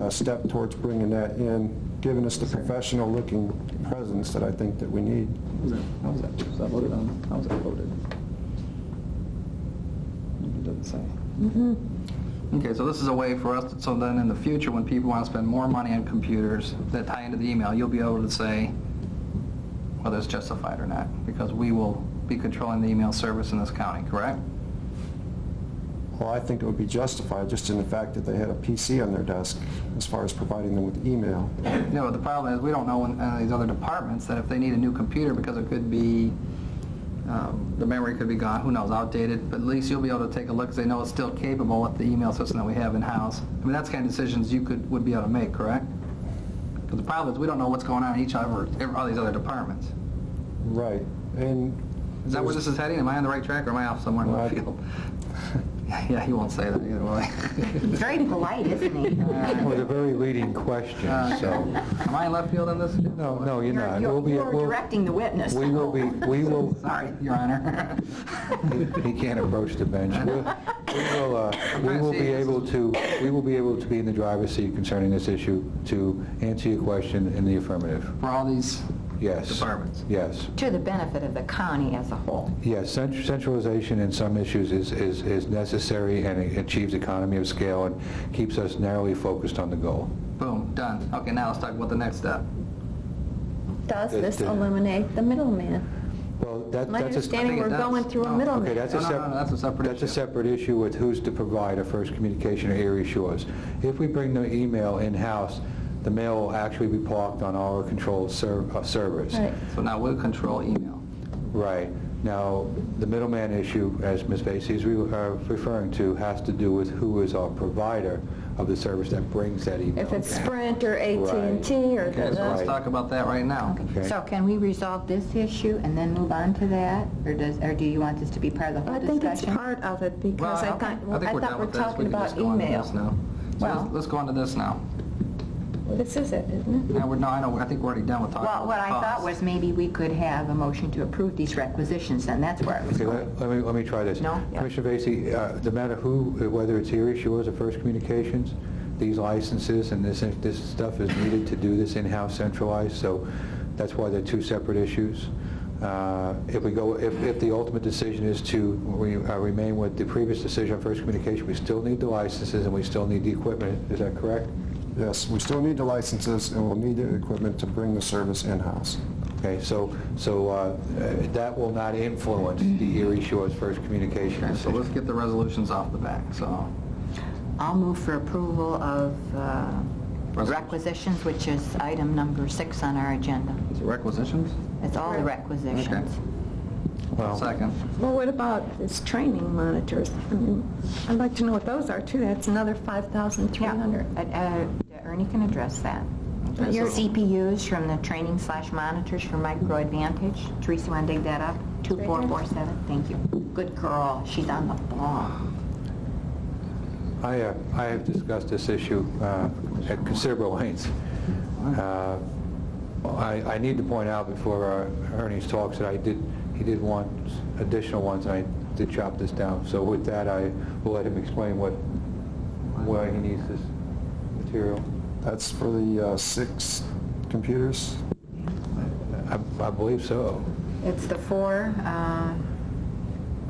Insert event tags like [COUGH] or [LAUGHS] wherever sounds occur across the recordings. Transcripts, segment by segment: uh, step towards bringing that in, giving us the professional-looking presence that I think that we need. How was that? Was that voted on? How was that voted? It doesn't say. Okay, so this is a way for us, to- so then in the future, when people want to spend more money on computers that tie into the email, you'll be able to say whether it's justified or not, because we will be controlling the email service in this county, correct? Well, I think it would be justified just in the fact that they had a PC on their desk as far as providing them with email. You know, the problem is, we don't know in any of these other departments that if they need a new computer, because it could be, um, the memory could be gone, who knows, outdated, but at least you'll be able to take a look, because they know it's still capable with the email system that we have in-house. I mean, that's the kind of decisions you could, would be able to make, correct? Because the problem is, we don't know what's going on in each of our, every- all these other departments. Right. And Is that where this is heading? Am I on the right track, or am I off somewhere in Well, I- left field? [LAUGHS] Yeah, he won't say that either, will he? [LAUGHS] He's very polite, [LAUGHS] isn't he? That was a very leading question, Uh, so, Am I in left field on this? no, no, you're You're not. We'll be- you're we'll- directing the witness. We [LAUGHS] will be, we will, Sorry, Your Honor. [LAUGHS] he can't approach the bench. We'll- We will, uh, we will be able to, we will be able to be in the driver's seat concerning this issue to answer your question in the affirmative. For all these Yes. departments. Yes. To the benefit of the county as a whole. Yes, cent- centralization in some issues is, is is necessary and it achieves economy of scale and keeps us narrowly focused on the goal. Boom, done. Okay, now let's talk about the next step. Does That- this that- eliminate the middleman? Well, that, My that's a... understanding, think we're it does. going through No. a Oh, Okay, middleman. that's a No, no, separate... no, that's a separate That's a issue. separate issue with who's to provide a first communication or area shores. If we bring the email in-house, the mail will actually be parked on our controlled ser- uh, servers. Right. So now we'll control email. Right. Now, the middleman issue, as Ms. Vacy is re- uh, referring to, has to do with who is our provider of the service that brings that email. If it's Sprint or at and t or... Okay, so let's Right. talk about that right now. Okay. So can we resolve this issue and then move on to that? Or does, or do you want this to be part of the whole I think discussion? it's part of it because I thought, Well, I think we're thought done we're with this. We talking can just about go on to this email. now. So Well- let's- let's go on to this now. This is it, isn't it? Now, we're, no, I know, I think we're already done with talking about Well, the what I thought cost. was maybe we could have a motion to approve these requisitions, and that's where I was Okay, going. let let me, let me try this. No? Yeah. Commissioner Vacy, uh, no matter who, whether it's Erie Shores or First Communications, these licenses and this, this stuff is needed to do this in-house centralized, so that's why they're two separate issues. Uh, If we go, if, if the ultimate decision is to re- uh, remain with the previous decision on First Communication, we still need the licenses and we still need the equipment, is that correct? Yes, we still need the licenses and we'll need the equipment to bring the service in-house. Okay, so, so uh, that will not influence the Erie Shores First Communications Okay, so decision. let's get the resolutions off the back, so. I'll move for approval of uh, Resolution. requisitions, which is item number six on our agenda. Is it requisitions? It's all the requisitions. Well- Second. Well, what about this training monitors? I mean, I'd like to know what those are too. That's another Yeah, 5,300. uh, uh, Ernie can address that. Okay, Your so- CPUs from the training slash monitors for Micro Advantage. Teresa, want to dig that up? 2447, thank you. Good girl, she's on the ball. I, uh, I have discussed this issue uh, at considerable length. Uh, I, I need to point out before uh, Ernie's talks that I did, he did want additional ones, and I did chop this down. So with that, I will let him explain what, why he needs this material. That's for the uh, six computers. I I believe so. It's the four, uh,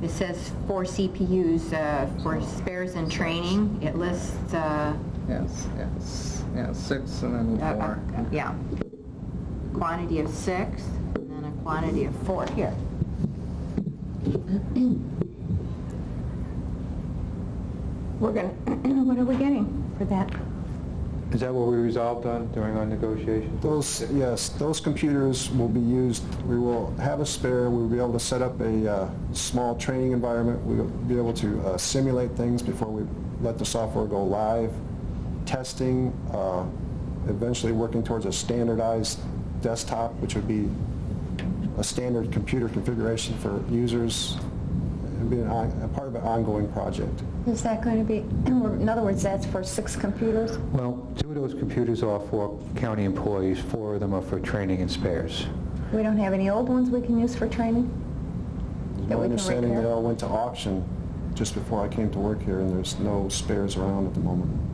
it says four CPUs uh, for spares and training. It lists, uh, Yes, yes, yeah, six and a- then a- four. yeah, quantity of six, and then a quantity of four. Here, [CLEARS THROAT] We're gonna, what are we getting for that? Is that what we resolved on during our negotiations? Those, yes, those computers will be used, we will have a spare, we'll be able to set up a uh, small training environment, we'll be able to uh, simulate things before we let the software go live, testing, uh, eventually working towards a standardized desktop, which would be a standard computer configuration for users, it'd be an on- a part of an ongoing project. Is that going to be, in other words, that's for six computers? Well, two of those computers are for county employees, four of them are for training and spares. We don't have any old ones we can use for training? My That we can understanding, they repair? all went to auction just before I came to work here, and there's no spares around at the moment.